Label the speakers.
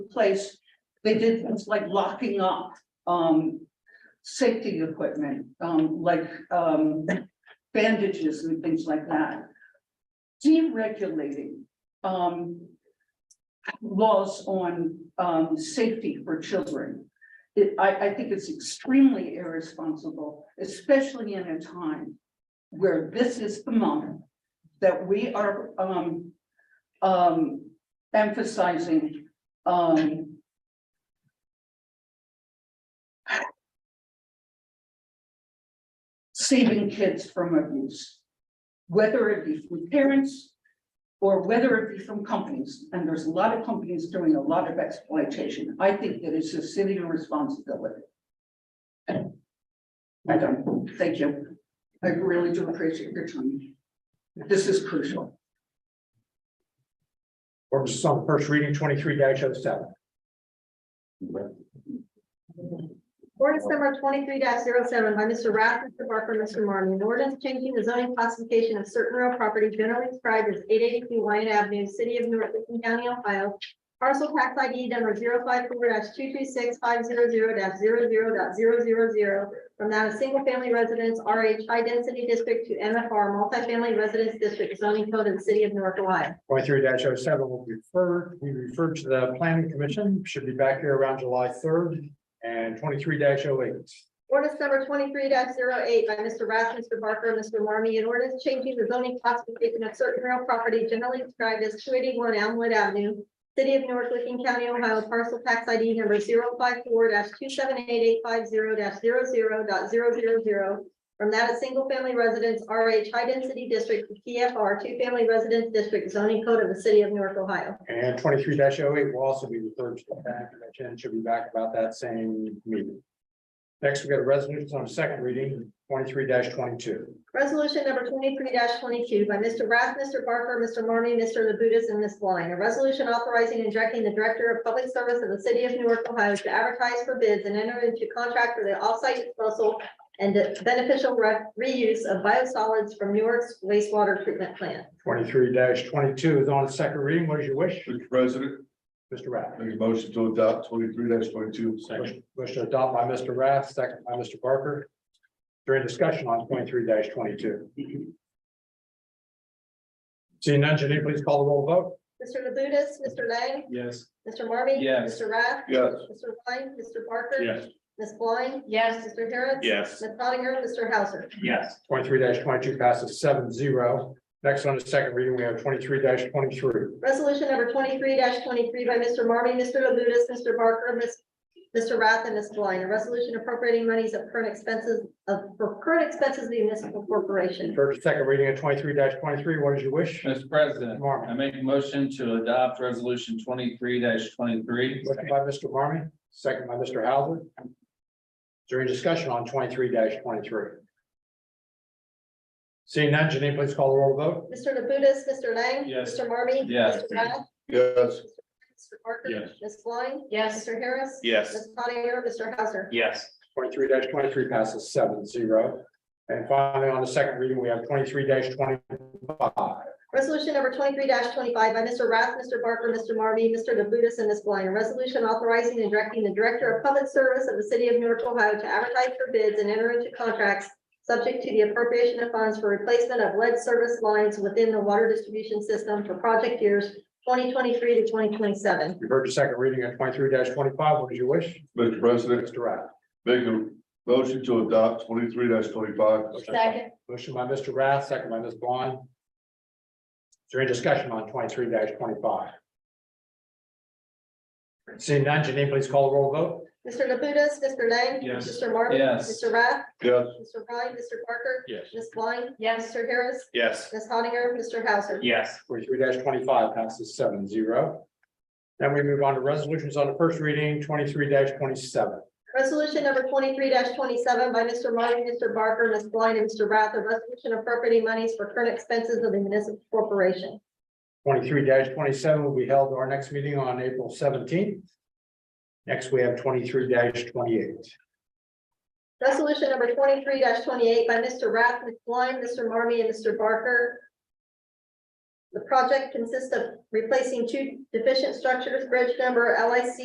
Speaker 1: place, they did things like locking up, um, safety equipment, um, like, um, bandages and things like that. Deregulating, um, laws on, um, safety for children. It, I, I think it's extremely irresponsible, especially in a time where this is the moment that we are, um, um, emphasizing, um, saving kids from abuse, whether it be from parents or whether it be from companies. And there's a lot of companies doing a lot of exploitation. I think that it's a city responsibility. I don't, thank you. I really do appreciate your time. This is crucial.
Speaker 2: Ordinance on first reading twenty-three oh 7
Speaker 3: Ordinance number twenty-three 7 by Mr. Rath, Mr. Barker, Mr. Marmy. An ordinance changing the zoning classification of certain real property generally described as eight eighty-two Wyatt Avenue, City of North Lincoln County, Ohio. Parcel tax ID number 54 two two six five zero zero 0 From that, a single-family residence RH High Density District to MFR Multifamily Residence District zoning code of the City of North Ohio.
Speaker 2: Twenty-three 7 will be referred, we refer to the planning commission, should be back here around July third, and twenty-three oh 8
Speaker 3: Ordinance number twenty-three 8 by Mr. Rath, Mr. Barker, and Mr. Marmy, an ordinance changing the zoning classification of certain real property generally described as two eighty-one Elmwood Avenue, City of North Licking County, Ohio, parcel tax ID number 54 two seven eight eight five zero 0 From that, a single-family residence RH High Density District, PFR, two-family residence district zoning code of the City of North, Ohio.
Speaker 2: And twenty-three 8 will also be referred to the planning commission, should be back about that same meeting. Next, we got a resolution on second reading, twenty-three twenty-two.
Speaker 3: Resolution number twenty-three twenty-two by Mr. Rath, Mr. Barker, Mr. Marmy, Mr. Labutus, and Ms. Blind. A resolution authorizing and directing the Director of Public Service of the City of Newark, Ohio to advertise for bids and enter into contract for the offsite disposal and the beneficial re- reuse of biosolids from Newark's wastewater treatment plant.
Speaker 2: Twenty-three twenty-two is on its second reading, what is your wish,
Speaker 4: Mr. President,
Speaker 2: Mr. Rath?
Speaker 4: make a motion to adopt twenty-three twenty-two.
Speaker 2: Motion to adopt by Mr. Rath, second by Mr. Barker. During discussion on twenty-three twenty-two. Seeing none, Janine, please call the roll vote.
Speaker 3: Mr. Labutus, Mr. Lang,
Speaker 2: Yes.
Speaker 3: Mr. Marmy.
Speaker 2: Yes.
Speaker 3: Mr. Rath.
Speaker 4: Yes.
Speaker 3: Mr. Blind, Mr. Barker. Ms. Blind. Yes. Mr. Harris.
Speaker 4: Yes.
Speaker 3: Ms. Hattiger, Mr. Hauser.
Speaker 2: Yes. Twenty-three twenty-two passes seven zero. Next on the second reading, we have twenty-three twenty-three.
Speaker 3: Resolution number twenty-three twenty-three by Mr. Marmy, Mr. Labutus, Mr. Barker, Ms. Mr. Rath and Ms. Blind, a resolution appropriating monies of current expenses of, for current expenses of the municipal corporation.
Speaker 2: First, second reading of twenty-three twenty-three, what is your wish?
Speaker 4: Uh,
Speaker 5: Mr. President, I
Speaker 2: Marmy,
Speaker 5: make a motion to adopt resolution twenty-three twenty-three.
Speaker 2: motion by Mr. Marmy, second by Mr. Hauser. During discussion on twenty-three twenty-three. Seeing none, Janine, please call the roll vote.
Speaker 3: Mr. Labutus, Mr. Lang.
Speaker 5: Yes.
Speaker 3: Mr. Marmy.
Speaker 5: Yes.
Speaker 3: Mr. Rath,
Speaker 4: Yes.
Speaker 3: Mr. Barker.
Speaker 5: Yes.
Speaker 3: Ms. Blind. Yes. Mr. Harris.
Speaker 4: Yes.
Speaker 3: Ms. Pottinger, Mr. Hauser.
Speaker 5: Yes.
Speaker 2: Twenty-three twenty-three passes seven zero. And finally, on the second reading, we have twenty-three twenty-five.
Speaker 3: Resolution number twenty-three twenty-five by Mr. Rath, Mr. Barker, Mr. Marmy, Mr. Labutus, and Ms. Blind. A resolution authorizing and directing the Director of Public Service of the City of Newark, Ohio to advertise for bids and enter into contracts subject to the appropriation of funds for replacement of lead service lines within the water distribution system for project years twenty twenty-three to twenty twenty-seven.
Speaker 2: You've heard the second reading of twenty-three twenty-five. What is your wish?
Speaker 4: Mr. President,
Speaker 2: Mr. Rath.
Speaker 4: make a motion to adopt twenty-three twenty-five.
Speaker 2: Motion by Mr. Rath, second by Ms. Blind. Is there any discussion on twenty-three twenty-five? Seeing none, Janine, please call the roll vote.
Speaker 3: Mr. Labutus, Mr. Lang.
Speaker 5: Yes.
Speaker 3: Mr. Marmy.
Speaker 5: Yes.
Speaker 3: Mr. Rath,
Speaker 4: Yes.
Speaker 3: Mr. Ryan, Mr. Barker,
Speaker 5: Yes.
Speaker 3: Ms. Blind. Yes. Mr. Harris,
Speaker 4: Yes.
Speaker 3: Ms. Hattiger, Mr. Hauser.
Speaker 5: Yes.
Speaker 2: Forty-three twenty-five passes seven zero. Then we move on to resolutions on the first reading, twenty-three twenty-seven.
Speaker 3: Resolution number twenty-three twenty-seven by Mr. Martin, Mr. Barker, Ms. Blind, and Mr. Rath, a resolution appropriating monies for current expenses of the municipal corporation.
Speaker 2: Twenty-three twenty-seven will be held our next meeting on April seventeenth. Next, we have twenty-three twenty-eight.
Speaker 3: Resolution number twenty-three twenty-eight by Mr. Rath, Ms. Blind, Mr. Marmy, and Mr. Barker. The project consists of replacing two deficient structures, bridge number LIC